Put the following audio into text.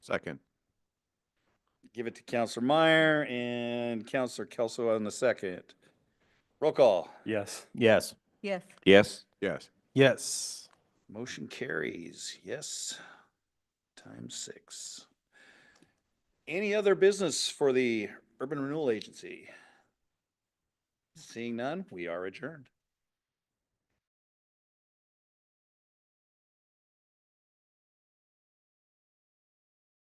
Second. Give it to Counselor Meyer and Counselor Kelso on the second. Roll call. Yes. Yes. Yes. Yes. Yes. Yes. Motion carries. Yes. Times six. Any other business for the Urban Renewal Agency? Seeing none, we are adjourned.